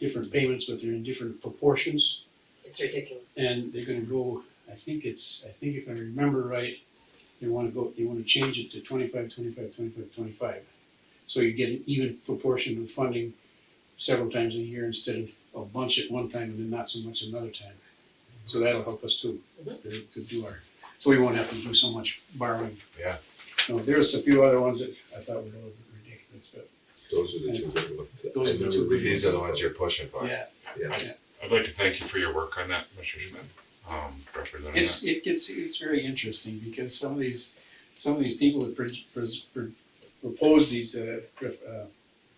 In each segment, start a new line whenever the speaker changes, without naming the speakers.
different payments, but they're in different proportions.
It's ridiculous.
And they're gonna go, I think it's, I think if I remember right, they wanna go, they wanna change it to 25, 25, 25, 25. So you get an even proportion of funding several times a year instead of a bunch at one time and then not so much another time. So that'll help us too,
Mhm.
to, to do our, so we won't have to do so much borrowing.
Yeah.
No, there's a few other ones that I thought were a little ridiculous, but
Those are the two big ones. that I
Those are the
remember
two big
reading.
These are the ones you're pushing for.
yeah,
Yeah.
I'd like to thank you for your work on that, Mr. Schmidt, um, representing that.
It's, it gets, it's very interesting because some of these, some of these people that pres- pres- pr- propose these, uh, pref- uh,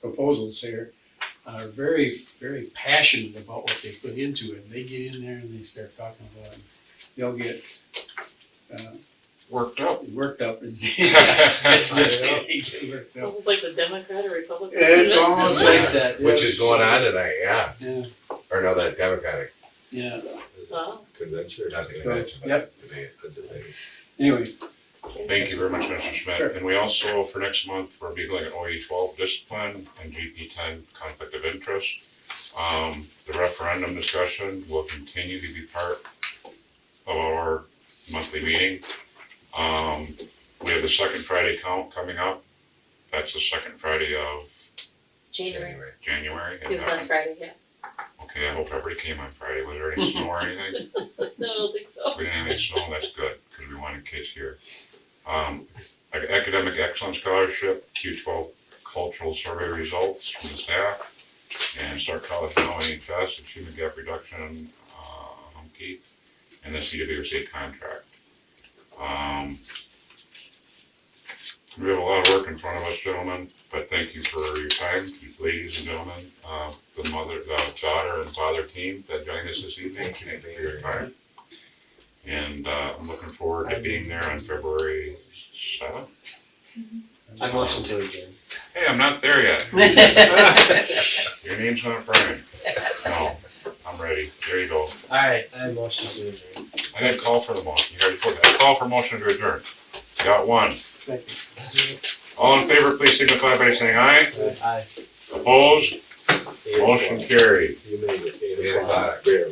proposals here are very, very passionate about what they put into it. They get in there and they start talking about it. They'll get, uh,
Worked up.
worked up. Yes, that's what They get worked up.
Almost like the Democrat or Republican.
It's
president.
almost like
like
that.
Which is going on tonight, yeah,
Yeah,
or no, that Democratic,
yeah.
Wow,
Convention or
not the
something.
convention, but
Yep.
debate.
A debate.
Anyway,
Thank you very much, Mr.
Sure.
Schmidt. And we also, for next month, we're be looking at OE E twelve discipline and GP ten conflict of interest. Um, the referendum discussion will continue to be part of our monthly meeting. Um, we have the second Friday count coming up. That's the second Friday of
January,
Anyway,
January.
it
and
was
that-
last Friday, yeah.
Okay, I hope everybody came on Friday. Was there any snow or anything?
No, I don't think so.
We didn't have any snow, that's good, because we wanted kids here. Um, ac- academic excellence scholarship, Q twelve cultural survey results from the staff, and start college now NHS, achievement gap reduction, uh, Humke, and the CWSA contract. Um, we have a lot of work in front of us, gentlemen, but thank you for your time, ladies and gentlemen, uh, the mother, the daughter and father team that joined us this evening.
Thank you.
for your time. And uh, I'm looking forward to being there on February seventh.
I'm watching to again.
Hey, I'm not there yet.
All
Your name's not burning. No, I'm ready. There you go.
right, I'm watching to adjourn.
I didn't call for the motion. You already told me. I call for motion to adjourn. Got one.
thank you.
All in favor, please signify by saying aye.
Aye.
Opposed? Motion carried.
You made it
Eight
eight
o'clock.
o'clock. Rare.